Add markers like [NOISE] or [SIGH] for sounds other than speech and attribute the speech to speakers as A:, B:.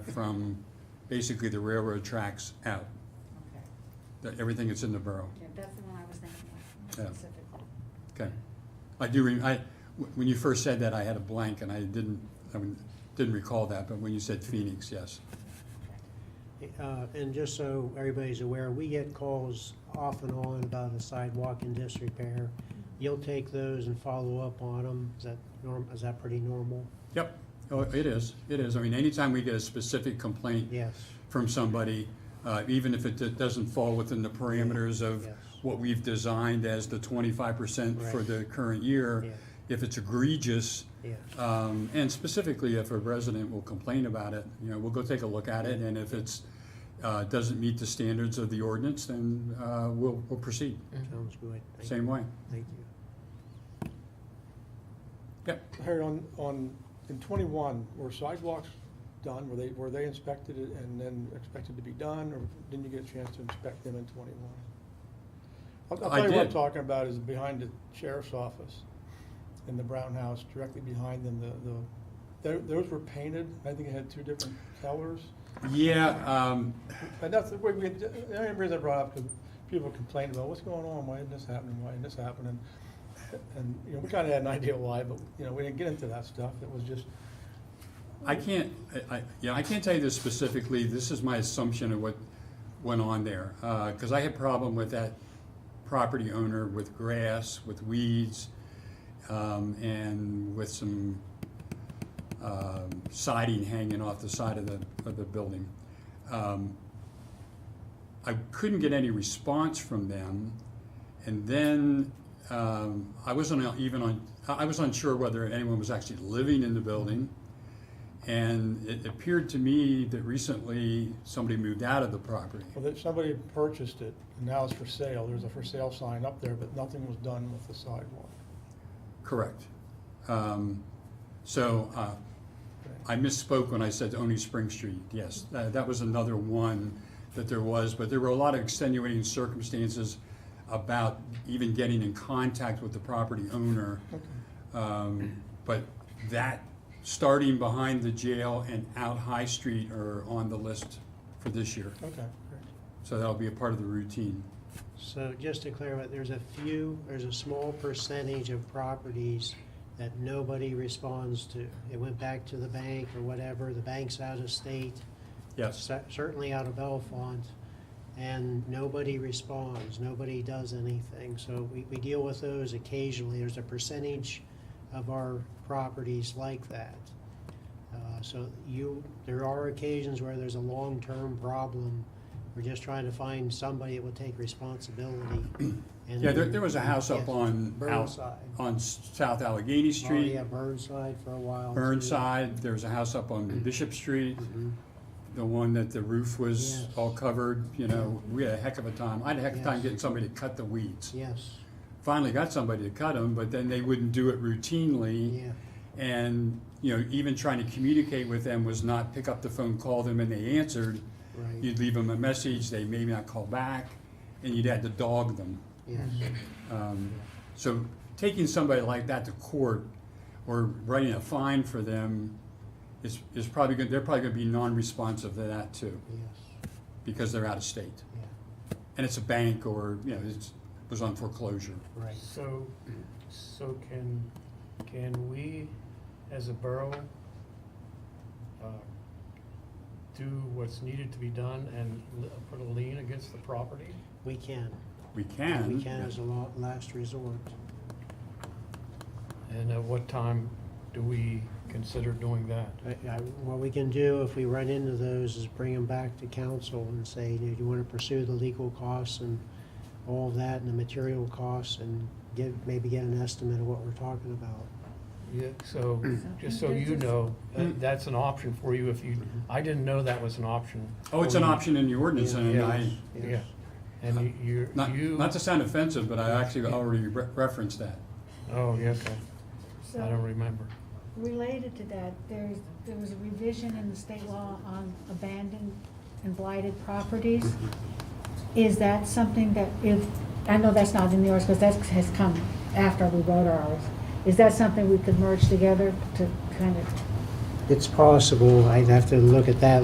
A: from basically the railroad tracks out,
B: Okay,
A: that everything that's in the borough.
B: yeah, that's the one I was thinking of
A: Yeah.
B: specifically.
A: Okay. I do, re- I, wh- when you first said that, I had a blank and I didn't, I wouldn't- didn't recall that, but when you said Phoenix, yes.
C: Uh, And just so everybody's aware, we get calls off and on about a sidewalk in disrepair. You'll take those and follow up on them, is that norm, is that pretty normal?
A: Yep. Oh, it is, it is. I mean, anytime we get a specific complaint
C: Yes,
A: from somebody, uh, even if it d- doesn't fall within the parameters of
C: Yes.
A: what we've designed as the twenty-five percent for
C: Right.
A: the current year,
C: Yeah.
A: if it's egregious,
C: yes,
A: Um, and specifically, if a resident will complain about it, you know, we'll go take a look at it, and if it's, uh, doesn't meet the standards of the ordinance, then, uh, we'll, we'll proceed,
C: sounds good. Thank
A: same way.
C: you. Thank you.
A: Yep,
D: Harry, on, on, in twenty-one, were sidewalks done, were they, were they inspected and then expected to be done, or didn't you get a chance to inspect them in twenty-one? I'll, I'll
A: I
D: tell you what I'm
A: did.
D: talking about is behind the sheriff's office in the Brown House, directly behind them, the, the, tho- those were painted, I think it had two different colors.
A: yeah, um,
D: And that's the way we, the only reason I brought up, because people complained about, what's going on, why isn't this happening, why isn't this happening? And, you know, we kinda had an [LAUGHS] idea why, but, you know, we didn't get into that stuff, it was just,
A: I can't, I, I- yeah, I can't tell you this specifically, this is my assumption of what went on there. Uh 'cause cause I had problem with that property owner with grass, with weeds, um, and with some, um, siding hanging off the side of the, of the building. Um, I couldn't get any response from them, and then, um, I wasn't even on, I I was unsure whether anyone was actually living in the building. And it appeared to me that recently somebody moved out of the property.
D: well, that somebody purchased it, and now it's for sale, there's a for sale sign up there, but nothing was done with the sidewalk.
A: Correct. Um, So uh,
D: Okay.
A: I misspoke when I said only Spring Street, yes. tha- That was another one that there was, but there were a lot of extenuating circumstances about even getting in contact with the property owner. Um, But that, starting behind the jail and out High Street are on the list for this year.
D: Okay, great.
A: So that'll be a part of the routine.
C: So just to clarify, there's a few, there's a small percentage of properties that nobody responds to. It went back to the bank or whatever, the bank's out of state,
A: Yes,
C: cer- certainly out of Bellefonte, and nobody responds, nobody does anything. So we, we deal with those occasionally. There's a percentage of our properties like that. Uh, So you, there are occasions where there's a long-term problem. We're just trying to find somebody that will take
A: [CLEARS THROAT]
C: responsibility. and-
A: yeah, there, there was a house up
C: Yes.
A: on, out-
C: Burnside.
A: on S- South Allegheny
C: Oh,
A: Street.
C: yeah, Burnside for a while. too.
A: Burnside, there was a house up on Bishop Street,
C: Mhm.
A: the one that the roof was
C: Yes.
A: all covered, you know, we had a heck of a time. I had a heck of a time
C: Yes.
A: getting somebody to cut the weeds.
C: Yes,
A: Finally got somebody to cut them, but then they wouldn't do it routinely.
C: yeah,
A: And, you know, even trying to communicate with them was not pick up the phone, call them, and they answered.
C: right,
A: You'd leave them a message, they may not call back, and you'd have to dog them.
C: yes.
A: Um, So taking somebody like that to court or writing a fine for them is, is probably going, they're probably going to be non-responsive to that too,
C: Yes,
A: because they're out of state.
C: yeah,
A: And it's a bank or, you know, it's, was on foreclosure.
C: right.
E: So, so can, can we, as a borough, uh, do what's needed to be done and li- put a lien against the property?
C: We can,
A: We can.
C: we can as a la- last resort.
E: And at what time do we consider doing that?
C: I- I- What we can do if we run into those is bring them back to council and say, do you want to pursue the legal costs and all of that and the material costs and give, maybe get an estimate of what we're talking about.
E: Yeah, so, just so you know, that- that's an option for you if you, I didn't know that was an option.
A: Oh, it's
E: for
A: an
E: you.
A: option in the ordinance and
E: Yeah.
A: I,
E: Yeah, and you- you're,
A: not,
E: you.
A: not to sound offensive, but I actually already re- referenced that.
E: Oh, yes, I don't
B: So,
E: remember.
B: related to that, there's, there was a revision in the state law on abandoned and blighted properties. Is that something that if, I know that's not in the ours, because that has come after we wrote ours. Is that something we could merge together to kind of
C: It's possible, I'd have to look at that